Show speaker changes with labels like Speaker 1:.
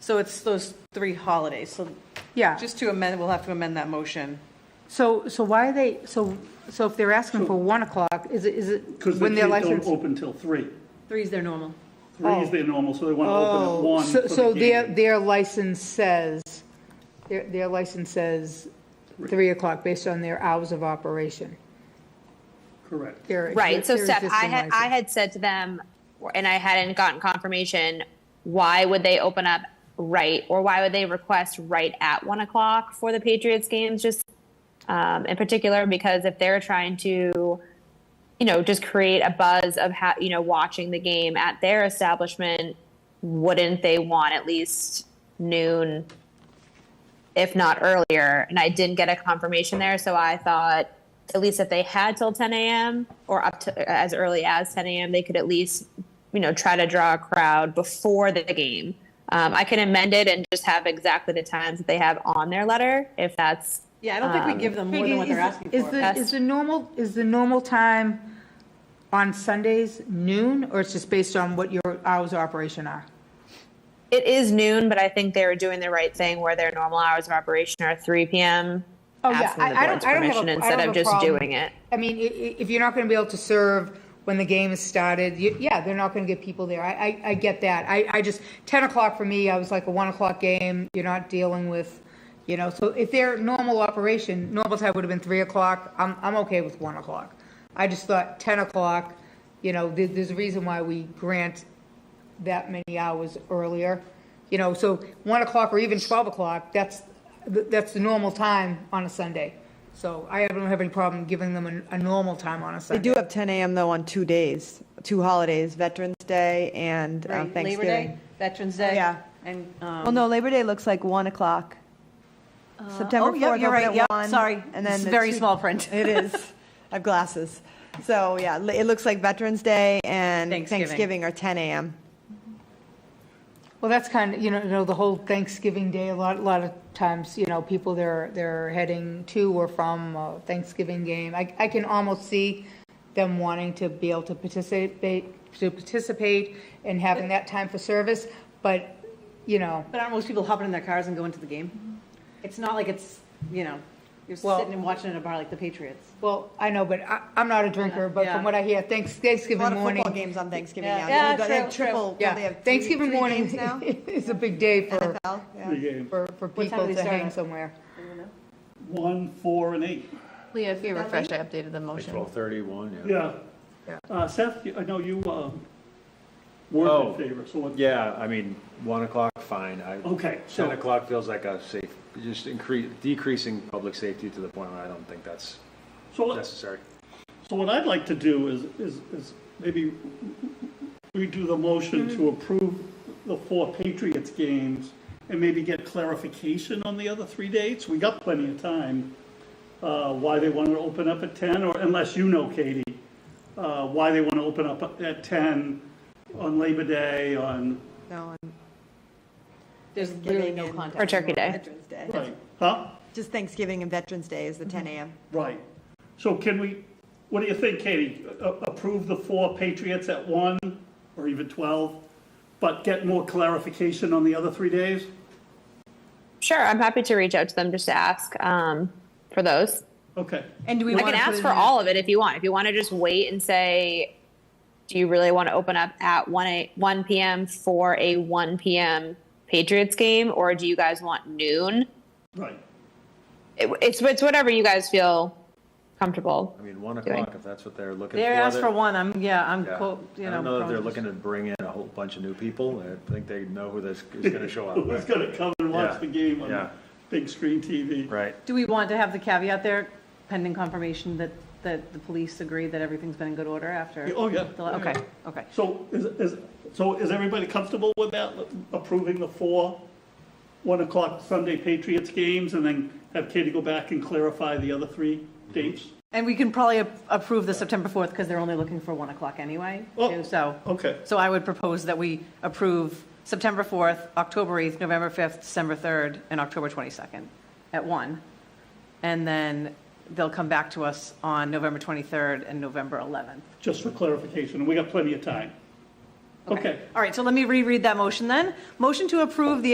Speaker 1: So it's those three holidays. So
Speaker 2: Yeah,
Speaker 1: just to amend, we'll have to amend that motion.
Speaker 2: so, so why are they, so, so if they're asking for 1 o'clock, is it, is it
Speaker 3: Because
Speaker 2: when
Speaker 3: they
Speaker 2: their
Speaker 3: can't don't
Speaker 2: license?
Speaker 3: open till three.
Speaker 4: Three's their normal.
Speaker 3: Three is their normal, so they want to open at
Speaker 2: Oh,
Speaker 3: one for
Speaker 2: so, so
Speaker 3: the
Speaker 2: their,
Speaker 3: game.
Speaker 2: their license says, their, their license says 3 o'clock based on their hours of operation.
Speaker 3: Correct.
Speaker 2: Their-
Speaker 5: Right, so
Speaker 2: their
Speaker 5: Steph, I
Speaker 2: existing
Speaker 5: had, I
Speaker 2: license.
Speaker 5: had said to them, and I hadn't gotten confirmation, why would they open up right, or why would they request right at one o'clock for the Patriots games, just um, in particular, because if they're trying to, you know, just create a buzz of how, you know, watching the game at their establishment, wouldn't they want at least noon, if not earlier? And I didn't get a confirmation there, so I thought at least if they had till 10 a.m. or up to as early as 10 a.m., they could at least, you know, try to draw a crowd before the game. Um, I can amend it and just have exactly the times that they have on their letter, if that's
Speaker 1: Yeah, I don't think we give them more than what
Speaker 2: Peggy,
Speaker 1: they're
Speaker 2: is-
Speaker 1: asking
Speaker 2: Um, Is
Speaker 1: for.
Speaker 2: the, is the normal, is the normal time on Sundays noon, or it's just based on what your hours of operation are?
Speaker 5: It is noon, but I think they were doing the right thing where their normal hours of operation are 3 p.m.
Speaker 2: Oh, yeah.
Speaker 5: asking
Speaker 2: I-
Speaker 5: the
Speaker 2: I
Speaker 5: board's
Speaker 2: don't- I don't have
Speaker 5: permission
Speaker 2: a- I
Speaker 5: instead
Speaker 2: don't
Speaker 5: of
Speaker 2: have a
Speaker 5: just
Speaker 2: problem.
Speaker 5: doing it.
Speaker 2: I mean, i- i- if you're not going to be able to serve when the game is started, you- yeah, they're not going to get people there. I, I, I get that. I, I just, 10 o'clock for me, I was like a 1 o'clock game, you're not dealing with, you know, so if their normal operation, normal time would have been 3 o'clock, I'm, I'm okay with 1 o'clock. I just thought 10 o'clock, you know, there, there's a reason why we grant that many hours earlier. You know, so 1 o'clock or even 12 o'clock, that's, th- that's the normal time on a Sunday. So I don't have any problem giving them a, a normal time on a
Speaker 6: They
Speaker 2: Sunday.
Speaker 6: do have 10 a.m. though on two days, two holidays, Veterans Day and um,
Speaker 1: Right, Labor
Speaker 6: Thanksgiving.
Speaker 1: Day, Veterans Day.
Speaker 6: Yeah.
Speaker 1: And,
Speaker 6: Well,
Speaker 1: um,
Speaker 6: no, Labor Day looks like 1 o'clock. September
Speaker 1: oh,
Speaker 6: 4th,
Speaker 1: yep, you're right,
Speaker 6: open
Speaker 1: yep,
Speaker 6: at 1.
Speaker 1: sorry. This
Speaker 6: And then
Speaker 1: is
Speaker 6: the
Speaker 1: very
Speaker 6: two-
Speaker 1: small print.
Speaker 6: It is. I have glasses. So, yeah, li- it looks like Veterans Day and
Speaker 1: Thanksgiving.
Speaker 6: Thanksgiving are 10 a.m.
Speaker 2: Well, that's kind of, you know, you know, the whole Thanksgiving Day, a lot, a lot of times, you know, people they're, they're heading to or from a Thanksgiving game. I, I can almost see them wanting to be able to participate, to participate and having that time for service, but, you know,
Speaker 1: but aren't most people hopping in their cars and going to the game? It's not like it's, you know, you're
Speaker 2: Well-
Speaker 1: sitting and watching at a bar like the Patriots.
Speaker 2: well, I know, but I, I'm not a drinker, but
Speaker 1: Yeah.
Speaker 2: from what I hear, Thanks-
Speaker 6: A lot
Speaker 2: Thanksgiving
Speaker 6: of
Speaker 2: morning.
Speaker 6: football games on Thanksgiving
Speaker 1: Yeah.
Speaker 6: now.
Speaker 1: Yeah,
Speaker 6: They have
Speaker 1: true,
Speaker 6: triple- well, they
Speaker 2: Yeah,
Speaker 6: have three-
Speaker 2: Thanksgiving
Speaker 6: three
Speaker 2: morning
Speaker 6: games now?
Speaker 2: is a big day for,
Speaker 6: NFL, yeah.
Speaker 3: The game,
Speaker 2: for, for
Speaker 1: time do
Speaker 2: people
Speaker 1: they
Speaker 2: to
Speaker 1: start
Speaker 2: hang
Speaker 1: at?
Speaker 2: somewhere.
Speaker 3: one, four, and eight.
Speaker 4: Leah, if you refresh, I updated the
Speaker 7: Like
Speaker 4: motion.
Speaker 7: 12:31, yeah.
Speaker 3: Yeah.
Speaker 2: Yeah.
Speaker 3: Uh, Seth, you- I know you, um,
Speaker 7: Oh.
Speaker 3: were in favor, so what?
Speaker 7: Yeah, I mean, 1 o'clock, fine. I-
Speaker 1: Oh,
Speaker 3: Okay, so-
Speaker 7: 10 o'clock feels like a safe, just increase, decreasing public safety to the point where I don't think that's
Speaker 3: So let's,
Speaker 7: necessary.
Speaker 3: So what I'd like to do is, is, is maybe redo the motion to approve the four Patriots games and maybe get clarification on the other three dates. We got plenty of time. Uh, why they want to open up at ten, or unless you know, Katie, uh, why they want to open up at ten on Labor Day, on,
Speaker 6: No, on
Speaker 1: There's literally
Speaker 6: Thanksgiving
Speaker 1: no
Speaker 6: and-
Speaker 1: contact.
Speaker 5: Or Turkey Day.
Speaker 6: Veterans Day.
Speaker 3: right, huh?
Speaker 6: Just Thanksgiving and Veterans Day is the 10 a.m.
Speaker 3: Right. So can we, what do you think, Katie? A- Approve the four Patriots at one, or even 12, but get more clarification on the other three days?
Speaker 5: Sure, I'm happy to reach out to them just to ask um, for those.
Speaker 3: Okay.
Speaker 2: And do we
Speaker 5: I can ask for all of it if you want. If you want to just wait and say, do you really want to open up at 1, a, 1 p.m. for a 1 p.m. Patriots game, or do you guys want noon?
Speaker 3: Right.
Speaker 5: It, it's, it's whatever you guys feel comfortable.
Speaker 7: I mean, 1
Speaker 5: Doing.
Speaker 7: o'clock, if that's what they're looking for.
Speaker 1: They asked for
Speaker 7: they're-
Speaker 1: one, I'm, yeah, I'm,
Speaker 7: yeah.
Speaker 1: quote, you know.
Speaker 7: I don't know that they're
Speaker 1: prone.
Speaker 7: looking to bring in a whole bunch of new people. I think they know who this is going to show up.
Speaker 3: Who's going to come and watch
Speaker 7: Yeah.
Speaker 3: the game on
Speaker 7: Yeah.
Speaker 3: big screen TV?
Speaker 7: Right.
Speaker 1: Do we want to have the caveat there pending confirmation that, that the police agree that everything's been in good order after?
Speaker 3: Oh, yeah.
Speaker 1: the- Okay, okay.
Speaker 3: So is, is, so is everybody comfortable with that, approving the four 1 o'clock Sunday Patriots games, and then have Katie go back and clarify the other three dates?
Speaker 7: Mm-hmm.
Speaker 1: And we can probably a- approve the September 4th because they're only looking for 1 o'clock anyway,
Speaker 3: Oh,
Speaker 1: too, so.
Speaker 3: okay.
Speaker 1: So I would propose that we approve September 4th, October 8th, November 5th, December 3rd, and October 22nd at 1. And then they'll come back to us on November 23rd and November 11th.
Speaker 3: Just for clarification, and we got plenty of time. Okay.
Speaker 1: All right, so let me reread that motion then. Motion to approve the